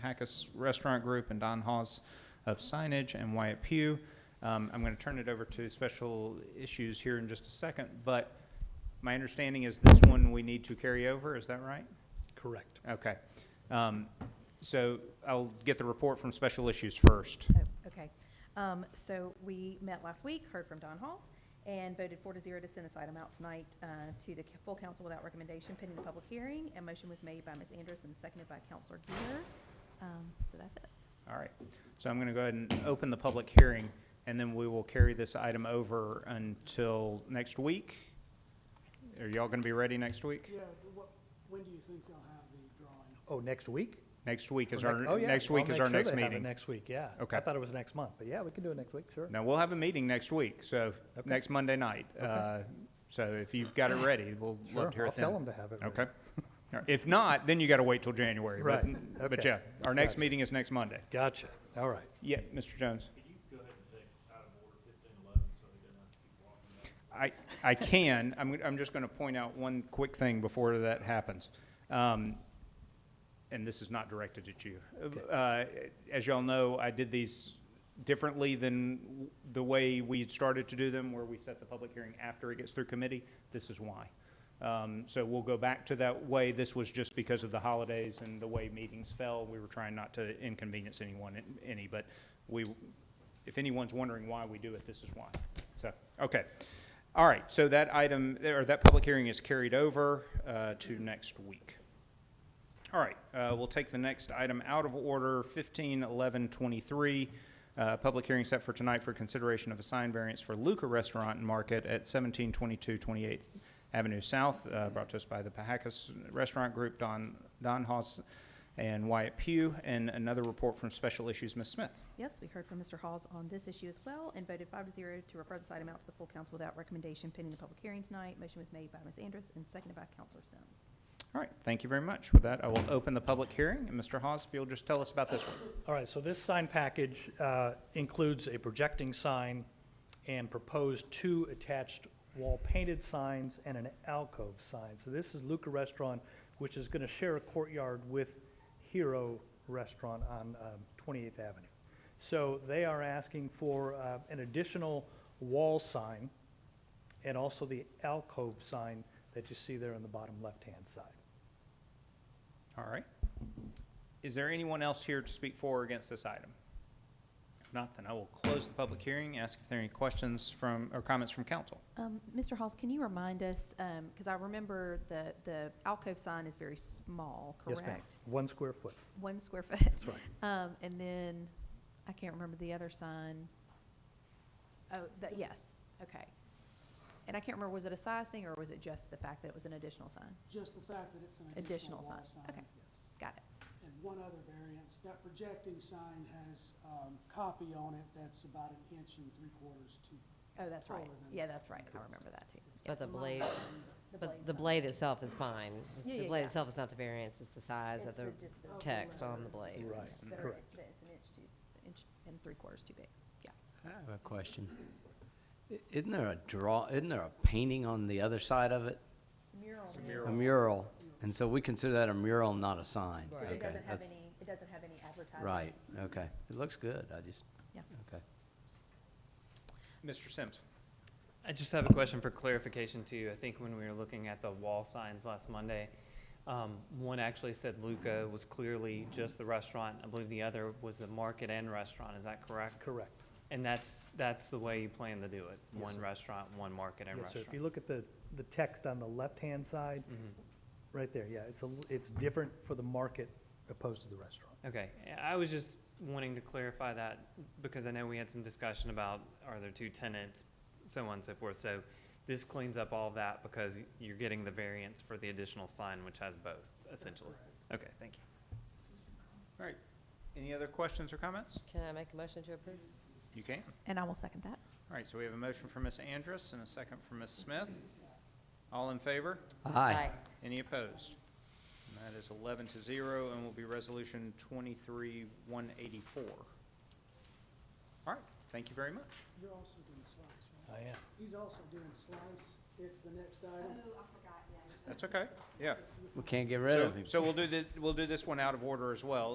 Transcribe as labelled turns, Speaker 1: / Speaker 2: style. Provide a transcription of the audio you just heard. Speaker 1: Hackus Restaurant Group and Don Hawes of Signage and Wyatt Pugh. Um, I'm going to turn it over to special issues here in just a second, but my understanding is this one we need to carry over, is that right?
Speaker 2: Correct.
Speaker 1: Okay. Um, So I'll get the report from special issues first.
Speaker 3: Oh, okay. Um, so we met last week, heard from Don Halls, and voted four to zero to send this item out tonight, uh, to the full council without recommendation pending the public hearing. And motion was made by Ms. Anderson, seconded by Counselor Gear. Um, so that's it.
Speaker 1: All right. So I'm going to go ahead and open the public hearing, and then we will carry this item over until next week. Are y'all going to be ready next week?
Speaker 4: Yeah, what, when do you think they'll have the drawing?
Speaker 2: Oh, next week?
Speaker 1: Next week is
Speaker 2: Or
Speaker 1: our,
Speaker 2: nec- oh, yeah.
Speaker 1: next
Speaker 2: Well,
Speaker 1: week
Speaker 2: I'll
Speaker 1: is
Speaker 2: make
Speaker 1: our
Speaker 2: sure
Speaker 1: next
Speaker 2: they have it
Speaker 1: meeting.
Speaker 2: Next week, yeah.
Speaker 1: Okay.
Speaker 2: I thought it was next month, but yeah, we can do it next week, sure.
Speaker 1: Now, we'll have a meeting next week, so
Speaker 2: Okay.
Speaker 1: next Monday night. Uh, So if you've got it ready, we'll
Speaker 2: Sure,
Speaker 1: love to hear
Speaker 2: I'll
Speaker 1: it
Speaker 2: tell
Speaker 1: then.
Speaker 2: them to have it. ready.
Speaker 1: Okay. All right. If not, then you got to wait till January. but-
Speaker 2: Right.
Speaker 1: But
Speaker 2: Okay.
Speaker 1: yeah, our next
Speaker 2: Gotcha.
Speaker 1: meeting is next Monday.
Speaker 2: Gotcha, all right.
Speaker 1: Yeah, Mr. Jones.
Speaker 5: Could you go ahead and take out of order fifteen eleven so they don't have to keep walking back?
Speaker 1: I, I can, I'm, I'm just going to point out one quick thing before that happens. Um, And this is not directed at you. Uh, As y'all know, I did these differently than w- the way we had started to do them, where we set the public hearing after it gets through committee. This is why. Um, So we'll go back to that way. This was just because of the holidays and the way meetings fell. We were trying not to inconvenience anyone, any, but we, if anyone's wondering why we do it, this is why. So, okay. All right, so that item, or that public hearing is carried over uh, to next week. All right, uh, we'll take the next item out of order, 151123, uh, public hearing set for tonight for consideration of a sign variance for Luca Restaurant and Market at 1722 28th Avenue South, uh, brought to us by the Pahacas Restaurant Group, Don Don Haas and Wyatt Pugh, and another report from Special Issues, Ms. Smith.
Speaker 3: Yes, we heard from Mr. Halls on this issue as well and voted five to zero to refer this item out to the full council without recommendation pending the public hearing tonight. Motion was made by Ms. Anderson, seconded by Counselor Sims.
Speaker 1: All right, thank you very much. With that, I will open the public hearing, and Mr. Haas, if you'll just tell us about this one.
Speaker 2: All right, so this sign package uh, includes a projecting sign and proposed two attached wall-painted signs and an alcove sign. So this is Luca Restaurant, which is going to share a courtyard with Hero Restaurant on um, 28th Avenue. So they are asking for uh, an additional wall sign and also the alcove sign that you see there on the bottom left-hand side.
Speaker 1: All right. Is there anyone else here to speak for or against this item? If not, then I will close the public hearing, ask if there are any questions from, or comments from council.
Speaker 3: Um, Mr. Halls, can you remind us, um, cause I remember the, the alcove sign is very small, correct?
Speaker 2: Yes, ma'am. One square foot.
Speaker 3: One square foot. That's
Speaker 2: right.
Speaker 3: Um, and then, I can't remember the other sign. Oh, the, yes, okay. And I can't remember, was it a size thing or was it just the fact that it was an additional sign?
Speaker 4: Just the fact that it's an
Speaker 3: Additional
Speaker 4: additional wall
Speaker 3: sign,
Speaker 4: sign.
Speaker 3: okay.
Speaker 4: yes.
Speaker 3: Got it,
Speaker 4: And one other variance, that projecting sign has, um, copy on it that's about an inch and three quarters to.
Speaker 3: oh, that's right,
Speaker 4: Taller than
Speaker 3: yeah,
Speaker 4: the-
Speaker 3: that's right, I remember that too.
Speaker 4: it's-
Speaker 3: Yeah.
Speaker 6: But the
Speaker 4: it's not
Speaker 6: blade,
Speaker 3: The
Speaker 6: but
Speaker 3: blade
Speaker 6: the
Speaker 3: sign.
Speaker 6: blade itself is fine. It's-
Speaker 3: Yeah,
Speaker 6: The
Speaker 3: yeah,
Speaker 6: blade
Speaker 3: yeah.
Speaker 6: itself is not the variance, it's the size of the
Speaker 4: of the
Speaker 6: text on the
Speaker 4: letters.
Speaker 6: blade.
Speaker 2: Right,
Speaker 3: That are-
Speaker 2: correct.
Speaker 3: that It's an inch too, it's an inch and three quarters too big, yeah.
Speaker 7: I have a question. I- Isn't there a draw, isn't there a painting on the other side of it?
Speaker 3: Mural.
Speaker 6: mural.
Speaker 7: A mural? And so we consider that a mural, not a sign?
Speaker 6: Right.
Speaker 3: It
Speaker 7: Okay,
Speaker 3: doesn't have
Speaker 7: that's-
Speaker 3: any, it doesn't have any advertising.
Speaker 7: Right, okay. It looks good, I just,
Speaker 3: Yeah.
Speaker 7: okay.
Speaker 1: Mr. Sims?
Speaker 8: I just have a question for clarification too. I think when we were looking at the wall signs last Monday, um, one actually said Luca was clearly just the restaurant. I believe the other was the market and restaurant. Is that correct?
Speaker 2: Correct.
Speaker 8: And that's, that's the way you plan to do it? One restaurant, one market and
Speaker 2: Yes, sir.
Speaker 8: restaurant?
Speaker 2: If you look at the, the text on the left-hand side,
Speaker 8: Mm-hmm.
Speaker 2: right there, yeah, it's a, l- it's different for the market opposed to the restaurant.
Speaker 8: Okay, I was just wanting to clarify that because I know we had some discussion about are there two tenants, so on and so forth. So this cleans up all that because you're getting the variance for the additional sign, which has both essentially. Okay, thank you.
Speaker 1: All right. Any other questions or comments?
Speaker 6: Can I make a motion to approve?
Speaker 1: You can.
Speaker 3: And I will second that.
Speaker 1: All right, so we have a motion from Ms. Andrus and a second from Ms. Smith. All in favor?
Speaker 7: Aye.
Speaker 1: Any opposed? And that is 11 to 0 and will be Resolution 23-184. All right, thank you very much.
Speaker 4: You're also doing slice,
Speaker 8: Oh,
Speaker 4: right?
Speaker 2: I am.
Speaker 4: He's also doing slice. It's the next item.
Speaker 1: That's okay, yeah.
Speaker 7: We can't get rid
Speaker 1: So-
Speaker 7: of him.
Speaker 1: So we'll do the, we'll do this one out of order as well.